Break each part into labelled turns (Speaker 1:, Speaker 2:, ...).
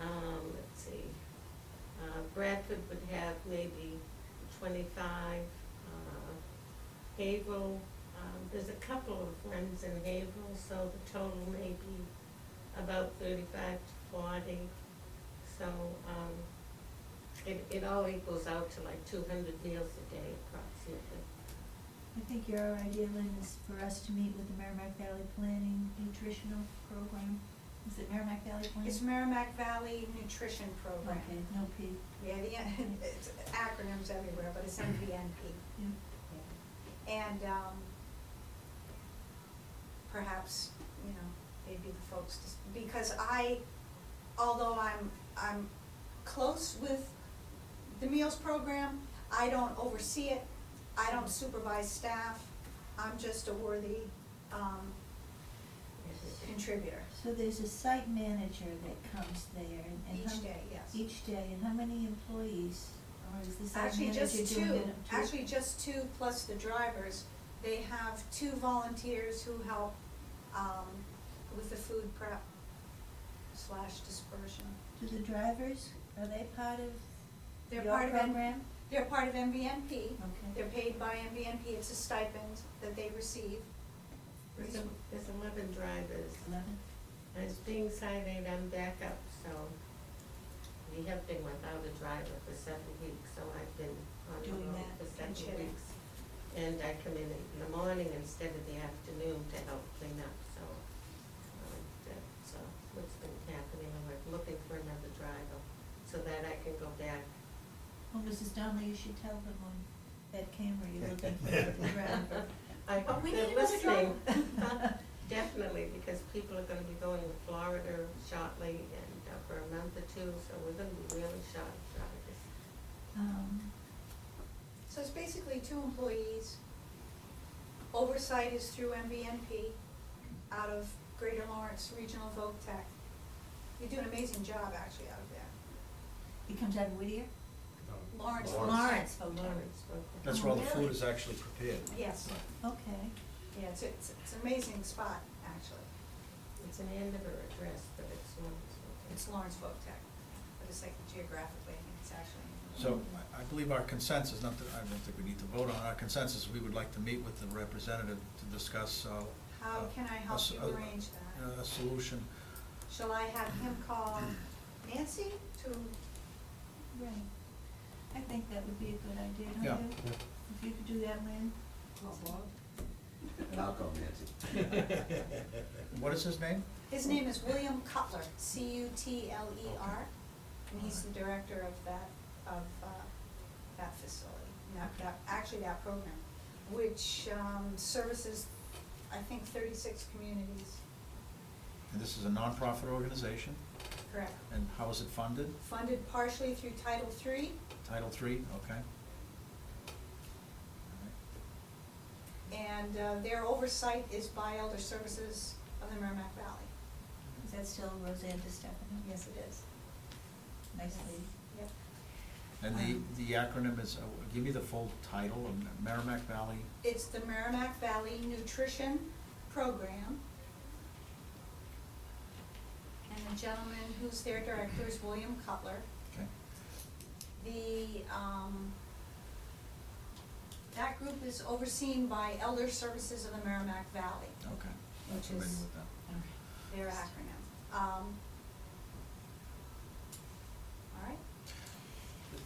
Speaker 1: Um, Uh, Bradford would have maybe twenty-five, uh, Havel, um, there's a couple of ones in Havel, so the total may be about thirty-five to forty. So, um, it, it all equals out to like two hundred meals a day approximately.
Speaker 2: I think your idea, Lynn, is for us to meet with the Merrimack Valley Planning Nutritional Program. Is it Merrimack Valley Planning?
Speaker 3: It's Merrimack Valley Nutrition Program.
Speaker 2: Okay, no P.
Speaker 3: Yeah, the, it's acronyms everywhere, but it's MVNP.
Speaker 2: Yeah.
Speaker 3: And, um, perhaps, you know, they'd be the folks to, s- because I, although I'm, I'm close with the meals program, I don't oversee it, I don't supervise staff, I'm just a worthy, um, contributor.
Speaker 2: So there's a site manager that comes there and- and. how-
Speaker 3: Each day, yes.
Speaker 2: Each day, and how many employees, or is the site
Speaker 3: Actually,
Speaker 2: manager doing
Speaker 3: just two,
Speaker 2: it?
Speaker 3: actually, just two plus the drivers. They have two volunteers who help, um, with the food prep slash dispersion.
Speaker 2: Do the drivers, are they part of
Speaker 3: They're
Speaker 2: your
Speaker 3: part of N-
Speaker 2: program?
Speaker 3: They're part of MVNP.
Speaker 2: Okay.
Speaker 3: They're paid by MVNP. It's a stipend that they receive.
Speaker 1: There's, a- there's eleven drivers.
Speaker 2: Eleven?
Speaker 1: And it's being signed, I'm back up, so we have been without a driver for seven weeks, so I've been on the
Speaker 2: Doing
Speaker 1: road
Speaker 2: that
Speaker 1: for
Speaker 3: and
Speaker 1: seven
Speaker 3: chilling.
Speaker 1: weeks. And I come in in the morning instead of the afternoon to help clean up, so, um, that's, uh, what's been happening, and we're looking for another driver, so that I can go back.
Speaker 2: Well, Mrs. Donnelly, you should tell them on that camera you're looking for the driver.
Speaker 1: I hope
Speaker 3: But Oh, we
Speaker 1: they're
Speaker 3: need another
Speaker 1: listening.
Speaker 2: driver.
Speaker 1: Definitely, because people are gonna be going to Florida shortly and uh, for a month or two, so we're gonna be really short of drivers.
Speaker 2: Um,
Speaker 3: So it's basically two employees. Oversight is through MVNP out of Greater Lawrence Regional Voc Tech. They do an amazing job, actually, out of there.
Speaker 2: It comes out of Whittier?
Speaker 3: Lawrence.
Speaker 2: Lawrence, oh, Lawrence,
Speaker 1: Lawrence, okay.
Speaker 4: That's where all the
Speaker 2: Really?
Speaker 4: food is actually prepared.
Speaker 3: Oh, Yes.
Speaker 2: okay.
Speaker 3: Yeah, it's, it's, it's an amazing spot, actually.
Speaker 1: It's an end of her address, but it's Lawrence, okay.
Speaker 3: It's Lawrence Folk Tech, but it's like geographically, I think it's actually.
Speaker 4: So I- I believe our consensus, not that, I don't think we need to vote on, our consensus, we would like to meet with the representative to discuss, uh.
Speaker 3: How
Speaker 4: uh,
Speaker 3: can I
Speaker 4: a
Speaker 3: help
Speaker 4: s-
Speaker 3: you
Speaker 4: a-
Speaker 3: arrange that?
Speaker 4: A solution.
Speaker 3: Shall I have him call Nancy to,
Speaker 2: Right. I think that would be a good idea, don't you?
Speaker 4: Yeah.
Speaker 2: If you could do that, Lynn?
Speaker 5: And I'll call Nancy.
Speaker 4: What is his name?
Speaker 3: his name is William Cutler, C U T L E R. And he's the director of that, of, uh, that facility, that, that, actually that program, which, um, services, I think, thirty-six communities,
Speaker 4: And this is a nonprofit organization,
Speaker 3: correct?
Speaker 4: and how is it funded?
Speaker 3: Funded partially through Title III
Speaker 4: Title III, okay. All right.
Speaker 3: And uh, their oversight is by Elder Services of the Merrimack Valley.
Speaker 2: Is that still Roseanne DiStefano?
Speaker 3: Yes, it is.
Speaker 2: Nice lady.
Speaker 3: Yep.
Speaker 4: And
Speaker 2: Um,
Speaker 4: the, the acronym is, uh, give me the full title, of Merrimack Valley,
Speaker 3: It's the Merrimack Valley Nutrition Program. And the gentleman who's their director is William Cutler.
Speaker 4: okay?
Speaker 3: The, um, that group is overseen by Elder Services of the Merrimack Valley,
Speaker 4: Okay.
Speaker 3: Which
Speaker 4: Familiar
Speaker 3: is-
Speaker 4: with that.
Speaker 2: All right.
Speaker 3: their acronym. Um, All right?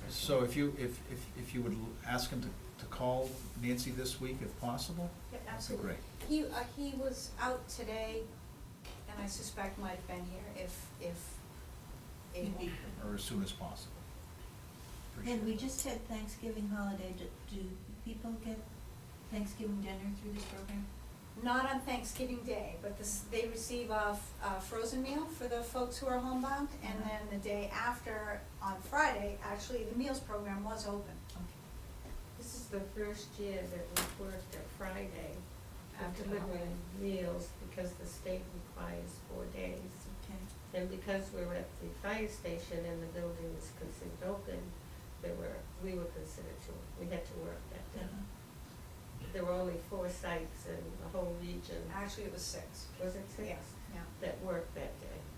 Speaker 4: So if you, if, if, if you would l- ask him to, to call Nancy this week if possible?
Speaker 3: Yep,
Speaker 4: that'd be
Speaker 3: absolutely.
Speaker 4: great.
Speaker 3: He, uh, he was out today, and I suspect might have been here if, if
Speaker 2: He'd
Speaker 3: able.
Speaker 2: be-
Speaker 4: Or as soon as possible. Appreciate
Speaker 2: And we
Speaker 4: it.
Speaker 2: just had Thanksgiving holiday. Do, do people get Thanksgiving dinner through this program?
Speaker 3: Not on Thanksgiving Day, but this, they receive a, f- a frozen meal for the folks who are homebound, and
Speaker 4: Uh-huh.
Speaker 3: then the day after, on Friday, actually, the meals program was open.
Speaker 2: Okay.
Speaker 1: This is the first year that we've worked at Friday
Speaker 3: After
Speaker 1: after
Speaker 3: the
Speaker 1: delivering meals because the state requires four days.
Speaker 2: Okay.
Speaker 1: And because we were at the fire station and the building was considered open, there were, we were considered to, we had to work that day.
Speaker 3: Uh-huh.
Speaker 1: There were only four sites in the whole region,
Speaker 3: Actually, it was six.
Speaker 1: was it six?
Speaker 3: Yeah, yeah.
Speaker 1: That worked that day.